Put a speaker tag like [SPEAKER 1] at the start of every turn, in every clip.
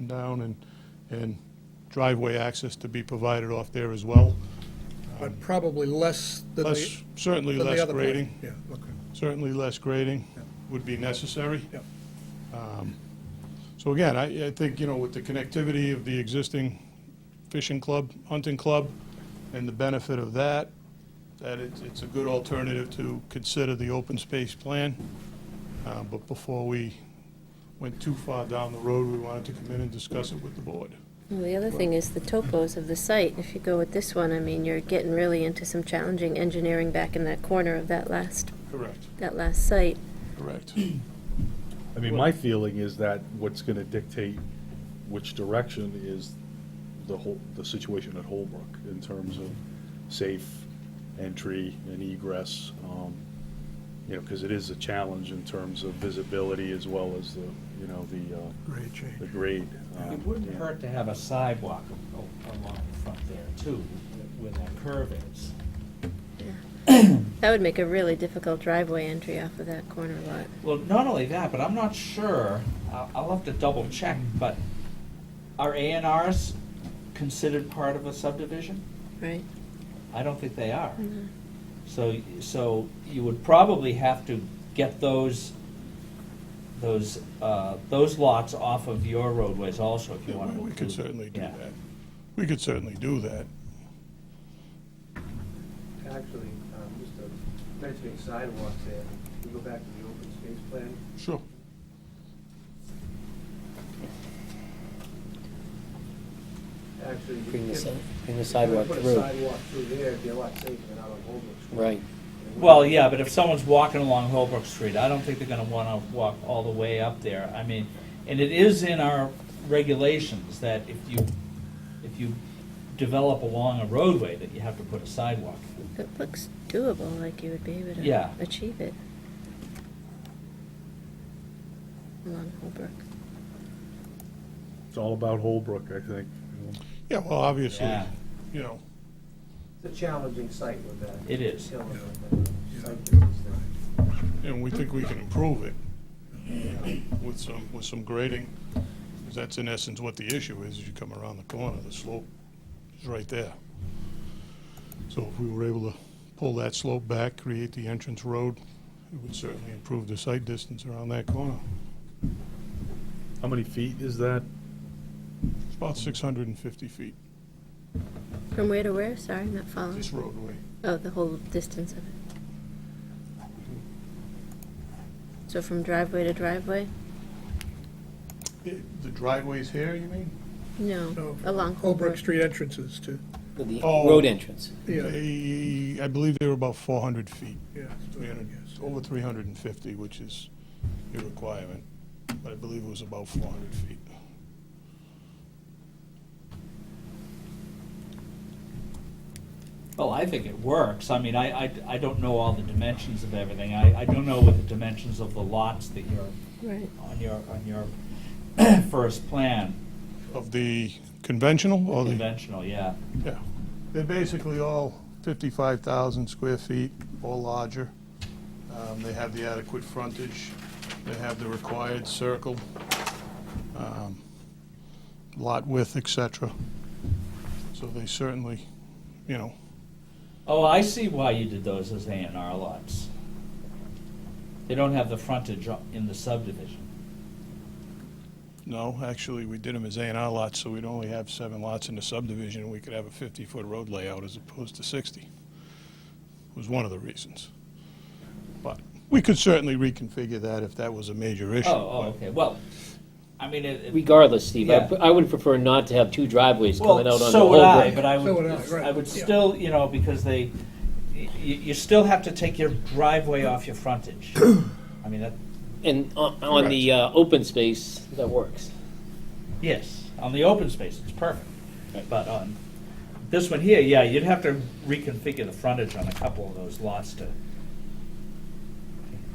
[SPEAKER 1] down and, and driveway access to be provided off there as well.
[SPEAKER 2] But probably less than the,
[SPEAKER 1] Less, certainly
[SPEAKER 2] than the
[SPEAKER 1] less
[SPEAKER 2] other plan.
[SPEAKER 1] grading,
[SPEAKER 2] Yeah, okay,
[SPEAKER 1] certainly less grading would be necessary.
[SPEAKER 2] yeah.
[SPEAKER 1] So again, I, I think, you know, with the connectivity of the existing fishing club, hunting club, and the benefit of that, that it's, it's a good alternative to consider the open space plan. Uh, but before we went too far down the road, we wanted to come in and discuss it with the board.
[SPEAKER 3] Well, the other thing is the topos of the site. If you go with this one, I mean, you're getting really into some challenging engineering back in that corner of that last,
[SPEAKER 1] Correct.
[SPEAKER 3] that last site.
[SPEAKER 1] Correct.
[SPEAKER 4] I mean, my feeling is that what's gonna dictate which direction is the whole, the situation at Holbrook in terms of safe entry and egress. um, You know, because it is a challenge in terms of visibility as well as the, you know, the, uh,
[SPEAKER 2] Grade
[SPEAKER 4] the
[SPEAKER 2] change.
[SPEAKER 4] grade. um,
[SPEAKER 5] It wouldn't
[SPEAKER 4] yeah.
[SPEAKER 5] hurt to have a sidewalk a- a- along the front there too, where that curve is.
[SPEAKER 3] That would make a really difficult driveway entry off of that corner lot.
[SPEAKER 5] Well, not only that, but I'm not sure, I'll, I'll have to double check, but are A and Rs considered part of a subdivision?
[SPEAKER 3] Right.
[SPEAKER 5] I don't think they
[SPEAKER 3] Hmm.
[SPEAKER 5] are. So, so you would probably have to get those, those, uh, those lots off of your roadways also if you want to.
[SPEAKER 1] We could certainly do
[SPEAKER 5] Yeah.
[SPEAKER 1] that. We could certainly do that.
[SPEAKER 6] Actually, um, just a- mentioning sidewalks there, we go back to the open space plan.
[SPEAKER 1] Sure.
[SPEAKER 6] Actually, we
[SPEAKER 7] Bring the
[SPEAKER 6] can-
[SPEAKER 7] si- bring the
[SPEAKER 6] if you
[SPEAKER 7] sidewalk
[SPEAKER 6] Put a
[SPEAKER 7] through.
[SPEAKER 6] sidewalk through there, it'd be a lot safer than out on Holbrook Street.
[SPEAKER 7] Right.
[SPEAKER 6] And we-
[SPEAKER 5] Well, yeah, but if someone's walking along Holbrook Street, I don't think they're gonna wanna walk all the way up there. I mean, and it is in our regulations that if you, if you develop along a roadway, that you have to put a sidewalk.
[SPEAKER 3] It looks doable, like you would be able to
[SPEAKER 5] Yeah.
[SPEAKER 3] achieve it. Along Holbrook.
[SPEAKER 4] It's all about Holbrook, I think. you know.
[SPEAKER 1] Yeah, well, obviously,
[SPEAKER 5] Yeah.
[SPEAKER 1] you know,
[SPEAKER 6] It's a challenging site with that.
[SPEAKER 5] It is.
[SPEAKER 6] hill and that site distance there.
[SPEAKER 1] and we think we can improve it you know, with some, with some grading. 'Cause that's in essence what the issue is, is you come around the corner, the slope is right there. So if we were able to pull that slope back, create the entrance road, it would certainly improve the sight distance around that corner.
[SPEAKER 4] How many feet is that?
[SPEAKER 1] It's about 650 feet,
[SPEAKER 3] From where to where? Sorry, I'm not following.
[SPEAKER 1] this roadway.
[SPEAKER 3] Oh, the whole distance of it. So from driveway to driveway?
[SPEAKER 1] It- The driveway's here, you mean?
[SPEAKER 3] No,
[SPEAKER 2] No.
[SPEAKER 3] along
[SPEAKER 2] Holbrook Street entrances to,
[SPEAKER 7] With the
[SPEAKER 1] Oh.
[SPEAKER 7] road entrance.
[SPEAKER 2] yeah,
[SPEAKER 1] They- I believe they were about 400 feet.
[SPEAKER 2] yeah. so,
[SPEAKER 1] 300,
[SPEAKER 2] yes.
[SPEAKER 1] over 350, which is your requirement, but I believe it was about 400 feet.
[SPEAKER 5] Well, I think it works. I mean, I, I, I don't know all the dimensions of everything. I, I don't know what the dimensions of the lots that you're,
[SPEAKER 3] Right.
[SPEAKER 5] on your, on your first plan,
[SPEAKER 1] Of the conventional or the?
[SPEAKER 5] conventional, yeah.
[SPEAKER 1] Yeah. They're basically all 55,000 square feet or larger. Um, They have the adequate frontage. They have the required circle, um, lot width, et cetera. So they certainly, you know,
[SPEAKER 5] Oh, I see why you did those as A and R lots. They don't have the frontage o- in the subdivision.
[SPEAKER 1] No, actually, we did them as A and R lots, so we'd only have seven lots in the subdivision, and we could have a 50-foot road layout as opposed to 60. Was one of the reasons. But we could certainly reconfigure that if that was a major issue.
[SPEAKER 5] Oh, oh, okay, well, I mean, it. it-
[SPEAKER 7] Regardless, Steve, I,
[SPEAKER 5] Yeah.
[SPEAKER 7] I would prefer not to have two driveways
[SPEAKER 5] well,
[SPEAKER 7] coming out on the
[SPEAKER 5] So
[SPEAKER 7] whole
[SPEAKER 5] would I,
[SPEAKER 7] road.
[SPEAKER 5] but I
[SPEAKER 2] So would I,
[SPEAKER 5] would,
[SPEAKER 2] right,
[SPEAKER 5] I would
[SPEAKER 2] yeah.
[SPEAKER 5] still, you know, because they, you, you still have to take your driveway off your frontage. I mean, that,
[SPEAKER 7] And on, on the, uh, open space, that works.
[SPEAKER 5] yes, on the open space, it's perfect. But on this one here, yeah, you'd have to reconfigure the frontage on a couple of those lots to,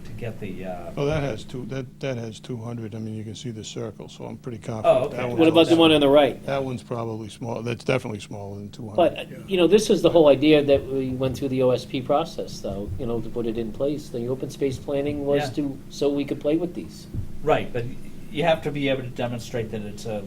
[SPEAKER 5] to get the, uh,
[SPEAKER 1] Oh, that has two, that, that has 200, I mean, you can see the circle, so I'm pretty
[SPEAKER 5] Oh,
[SPEAKER 1] confident.
[SPEAKER 5] okay.
[SPEAKER 1] that one's
[SPEAKER 7] What about the
[SPEAKER 1] also-
[SPEAKER 7] one on the right?
[SPEAKER 1] That one's probably small, that's definitely smaller than 200.
[SPEAKER 7] But, uh, you know, this is the whole idea that we went through the OSP process, though, you know, to put it in place. The open space planning was
[SPEAKER 5] Yeah.
[SPEAKER 7] to, so we could play with these.
[SPEAKER 5] Right, but you have to be able to demonstrate that it's a